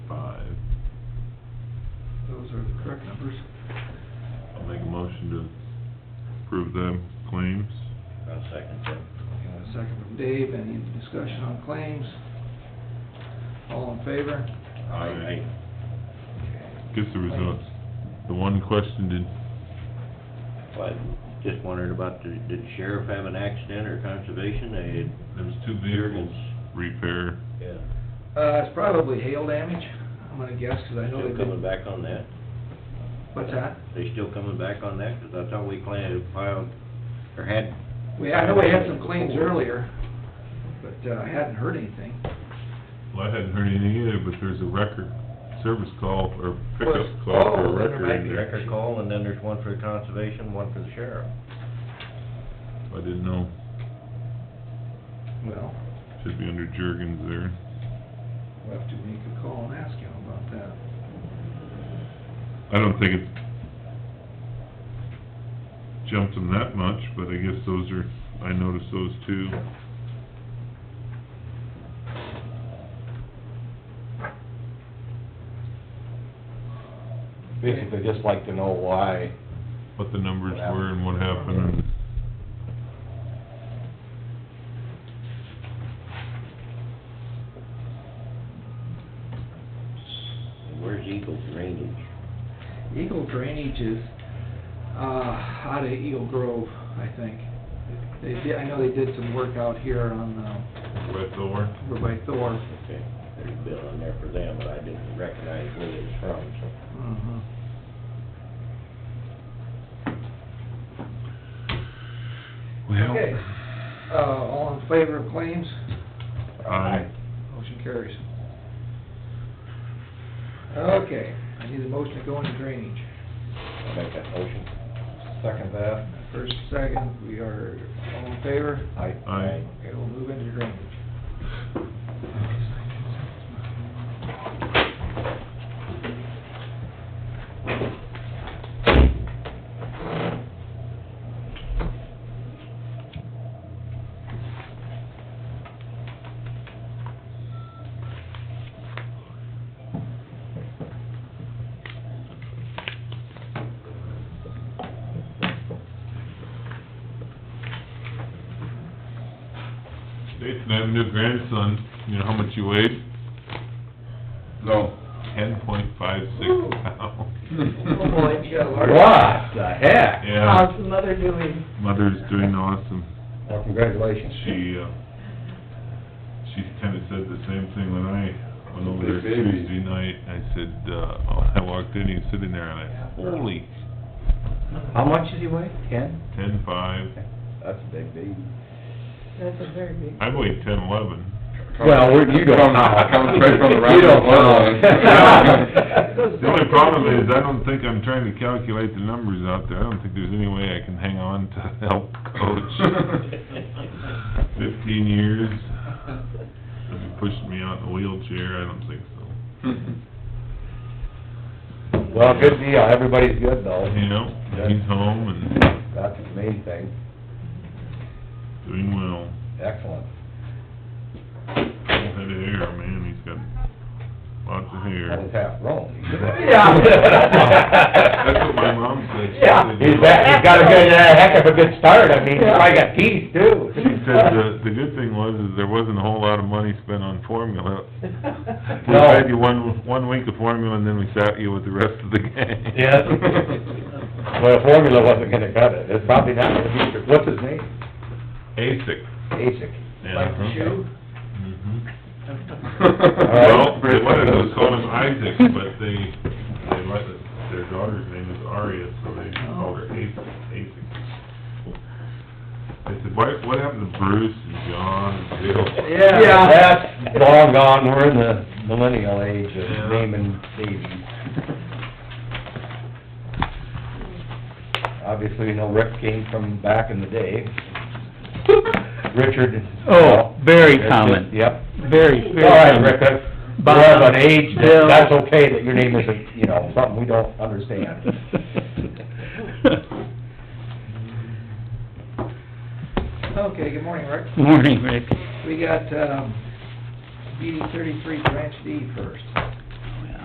numbers. I'll make a motion to approve the claims. I'll second that. And a second from Dave, any discussion on claims? All in favor? Aye. Guess there was a, the one question, did, But just wondered about, the- did the sheriff have an accident or conservation? They there was two vehicles repair. had, Uh, it's probably hail damage, I'm gonna guess, 'cause I know still they did, coming back on that? what's that? They still coming back on that? Because I thought we planned to file, or had. We, I know we had some claims earlier, but, uh, I hadn't heard anything. Well, I hadn't heard anything either, but there's a record service call or pickup Was- call for oh, a then there record might in be. there. Record call, and then there's one for the conservation, one for the sheriff. I didn't know, Well, should be under Jergens there. we'll have to make a call and ask him about that. I don't think it jumped them that much, but I guess those are, I noticed those two. Basically, just like to know why. what the numbers were and what happened and... And where's Eagle Drainage? Eagle Drainage is, uh, out of Eagle Grove, I think. They did, I know they did some work out here on, uh, Wet door. over by Thor. Okay, there's a bill on there for them, but I didn't recognize where it was from, so. Uh-huh. Well, Okay, uh, all in favor of claims? I, Motion carries. Okay, I need a motion to go into drainage. I'll make that motion. Second that. First, second, we are all in favor? I, I, Okay, we'll move into drainage. Staten Avenue grandson, you know how much you weighed? No. Ten point five six pounds. Oh, boy, you got a large... What the heck? Yeah, the mother doing? mother's doing awesome. Well, congratulations. She, uh, she kinda said the same thing when I went over there Tuesday night. I said, uh, I walked in, he was sitting there and I, holy, How much did he weigh? Ten? ten five. That's a big baby. That's a very big. I weighed ten eleven. Well, we're- you don't know. Coming straight from the right. You don't know. The only problem is, I don't think I'm trying to calculate the numbers out there, I don't think there's any way I can hang on to help coach. Fifteen years, if he pushed me out in a wheelchair, I don't think so. Well, good deal, everybody's good though. You know, he's home and That's the main thing, doing well, excellent. head of hair, man, he's got lots of That was hair. half wrong. Yeah. That's what my mom said. She Yeah, said, he's back, he's got a good, uh, heck of a good start, I mean, he probably got teeth too. She said the, the good thing was, is there wasn't a whole lot of money spent on formula, We No. had you one, one week of formula, and then we sat you with the rest of the gang. Yes. Well, formula wasn't gonna cut it, it's probably not gonna be, what's his name? ASIC. Asic. Yeah. Like the shoe? Mhm. Well, All right. they wanted to call him Isaac, but they, they let, it- their daughter's name is Aria, so they called her ASIC, ASIC. I said, why, what happened to Bruce and John and Bill? Yeah. That's long gone, we're in the millennial age Yeah. of naming babies. Obviously, you know, Rick came from back in the day. Richard. Oh, very Richard, common. Yep. Very, All right, very Rick, common. that's, we're of an age that, that's okay that your name isn't, you know, something we don't understand. Okay, good morning, Rick. Morning, Rick. We got, um, DD thirty-three branch D first.